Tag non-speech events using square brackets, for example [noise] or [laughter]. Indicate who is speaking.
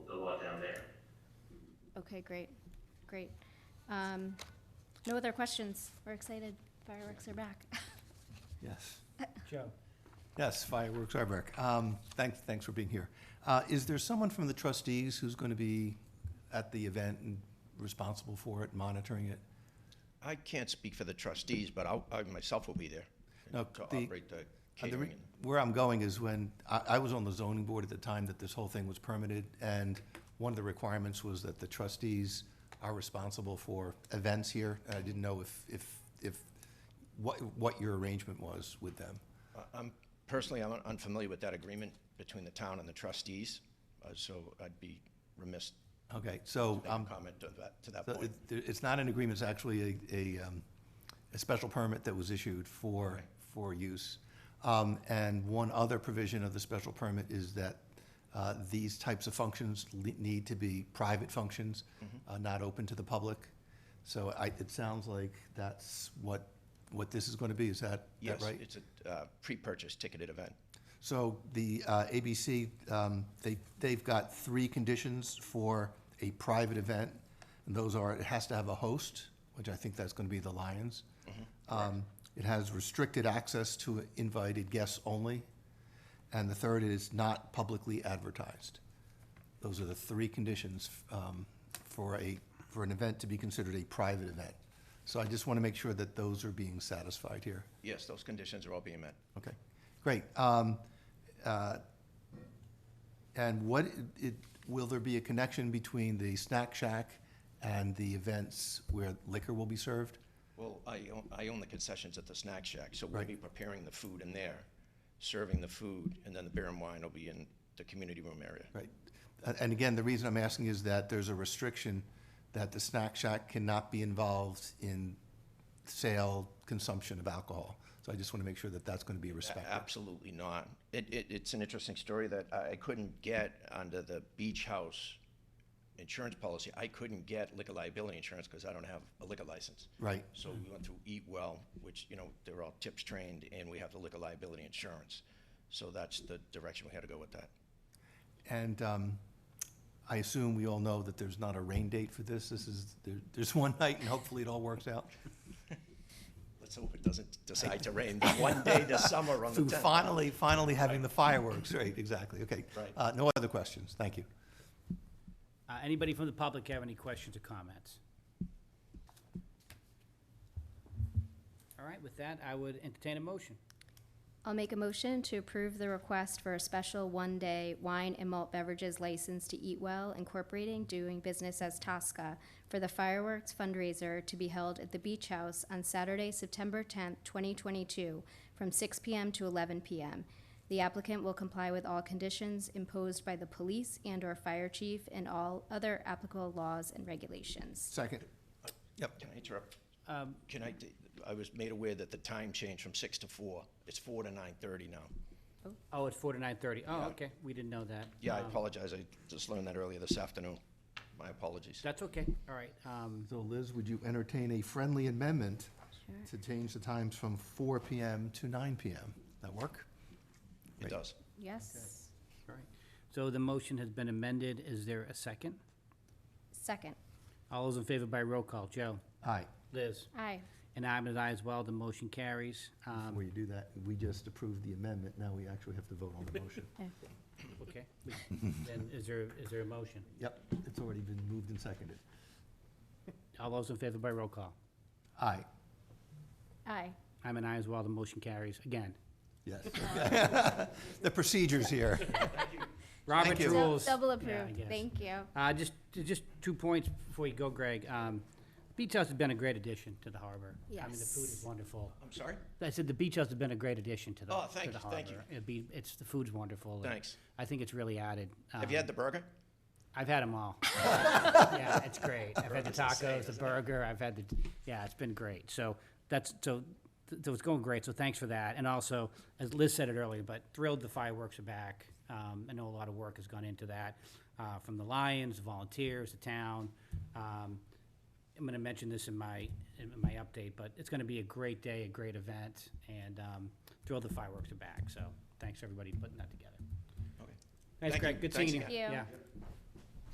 Speaker 1: Okay, great, great. Um, No other questions? We're excited. Fireworks are back. [laughs]
Speaker 2: Yes,
Speaker 3: Joe,
Speaker 2: yes, fireworks are back. Um, Thanks, thanks for being here. Uh, Is there someone from the trustees who's going to be at the event and responsible for it, monitoring it?
Speaker 4: I can't speak for the trustees, but I'll, I myself will be there
Speaker 2: No,
Speaker 4: to
Speaker 2: the-
Speaker 4: operate the
Speaker 2: Uh, the re-
Speaker 4: catering.
Speaker 2: Where I'm going is when, I, I was on the zoning board at the time that this whole thing was permitted, and one of the requirements was that the trustees are responsible for events here. And I didn't know if, if, if, what, what your arrangement was with them.
Speaker 4: I- I'm, personally, I'm unfamiliar with that agreement between the town and the trustees, uh, so I'd be remiss
Speaker 2: Okay, so
Speaker 4: to make
Speaker 2: I'm
Speaker 4: a comment to that, to that
Speaker 2: Um, So
Speaker 4: point.
Speaker 2: it- there- It's not an agreement, it's actually a, a, um, a special permit that was issued for, for use. Um, And one other provision of the special permit is that uh, these types of functions le- need to be private functions,
Speaker 4: Mm-hmm.
Speaker 2: uh, not open to the public. So I, it sounds like that's what, what this is going to be, is that, that
Speaker 4: Yes,
Speaker 2: right?
Speaker 4: it's a uh, pre-purchase ticketed event.
Speaker 2: So the uh, ABC, um, they, they've got three conditions for a private event. And those are, it has to have a host, which I think that's going to be the Lions. Um, It has restricted access to invited guests only. And the third is not publicly advertised. Those are the three conditions um, for a, for an event to be considered a private event. So I just want to make sure that those are being satisfied here.
Speaker 4: Yes, those conditions are all being met.
Speaker 2: Okay, great. Um, uh, And what, it, will there be a connection between the snack shack and the events where liquor will be served?
Speaker 4: Well, I, own- I own the concessions at the snack shack, so we'll
Speaker 2: Right.
Speaker 4: be preparing the food in there, serving the food, and then the beer and wine will be in the community room area.
Speaker 2: Right. A- And again, the reason I'm asking is that there's a restriction that the snack shack cannot be involved in sale, consumption of alcohol. So I just want to make sure that that's going to be
Speaker 4: A-
Speaker 2: respected.
Speaker 4: Absolutely not. It, it, it's an interesting story that I I couldn't get under the beach house insurance policy. I couldn't get liquor liability insurance because I don't have a liquor license.
Speaker 2: Right.
Speaker 4: So we went through Eat Well, which, you know, they're all tips trained, and we have the liquor liability insurance. So that's the direction we had to go with that.
Speaker 2: And um, I assume we all know that there's not a rain date for this. This is, there- there's [laughs] one night and hopefully it all works out.
Speaker 4: Let's hope it doesn't decide to rain that one day this summer on the
Speaker 2: Through
Speaker 4: 10th.
Speaker 2: finally, finally having the fireworks, right, exactly, okay.
Speaker 4: Right.
Speaker 2: Uh, No other questions, thank you.
Speaker 3: uh, anybody from the public have any questions or comments? All right, with that, I would entertain a motion.
Speaker 1: I'll make a motion to approve the request for a special one-day wine and malt beverages license to Eat Well Incorporating doing business as Tosca for the fireworks fundraiser to be held at the Beach House on Saturday, September tenth, twenty twenty-two, from six PM to eleven PM. The applicant will comply with all conditions imposed by the police and/or fire chief and all other applicable laws and regulations.
Speaker 2: Second. Yep,
Speaker 4: Can I interrupt?
Speaker 3: Um,
Speaker 4: Can I, t- I was made aware that the time changed from 6 to 4. It's 4 to 9:30 now.
Speaker 3: Oh, it's four to nine thirty. Oh, okay, we didn't know that.
Speaker 4: Yeah, I
Speaker 3: Um,
Speaker 4: apologize. I just learned that earlier this afternoon. My apologies.
Speaker 3: That's okay, all right. Um,
Speaker 2: so Liz, would you entertain a friendly amendment to change the times from four PM to nine PM? That work?
Speaker 4: It does.
Speaker 1: Yes?
Speaker 3: all right. So the motion has been amended. Is there a second?
Speaker 1: Second.
Speaker 3: All those in favor by roll call. Joe?
Speaker 2: Aye.
Speaker 3: Liz?
Speaker 1: Aye.
Speaker 3: And I'm an aye as well. The motion carries. Um,
Speaker 2: Before you do that, we just approved the amendment, now we actually have to vote on the motion.
Speaker 4: [laughs]
Speaker 3: Okay. we- Then is there, is there a motion?
Speaker 2: Yep, it's already been moved and seconded.
Speaker 3: All those in favor by roll call.
Speaker 2: Aye,
Speaker 1: Aye.
Speaker 3: I'm an aye as well. The motion carries. Again.
Speaker 2: yes. [laughs] The procedure's here.
Speaker 3: Robert
Speaker 2: you.
Speaker 1: Dou-
Speaker 3: rules.
Speaker 1: Double
Speaker 3: Yeah, I
Speaker 1: approved,
Speaker 3: guess.
Speaker 1: thank you.
Speaker 3: Uh, just, just two points before you go, Greg. Um, Beach House has been a great addition to the harbor. I mean, the food is
Speaker 1: Yes.
Speaker 3: wonderful.
Speaker 4: I'm sorry?
Speaker 3: I said the beach house has been a great addition to the,
Speaker 4: Oh,
Speaker 3: to
Speaker 4: thank
Speaker 3: the
Speaker 4: you,
Speaker 3: harbor.
Speaker 4: thank you.
Speaker 3: It'd be, it's, the food's wonderful. and
Speaker 4: Thanks.
Speaker 3: I think it's really added.
Speaker 4: Have you
Speaker 3: um,
Speaker 4: had the burger?
Speaker 3: I've had them
Speaker 4: [laughs]
Speaker 3: all. Yeah, it's great. I've had the
Speaker 4: Burger's insane,
Speaker 3: tacos, the
Speaker 4: isn't it?
Speaker 3: burger, I've had the, yeah, it's been great. So that's, so, th- so it's going great, so thanks for that. And also, as Liz said it earlier, but thrilled the fireworks are back. Um, I know a lot of work has gone into that, uh, from the Lions, volunteers, the town. Um, I'm gonna mention this in my, in my update, but it's gonna be a great day, a great event, and, um, thrilled the fireworks are back, so thanks everybody for putting that together.
Speaker 4: Okay.
Speaker 3: Thanks,
Speaker 4: Thank you.
Speaker 3: Greg, good
Speaker 4: Thanks
Speaker 3: seeing you.
Speaker 1: again. Thank you.
Speaker 3: Yeah,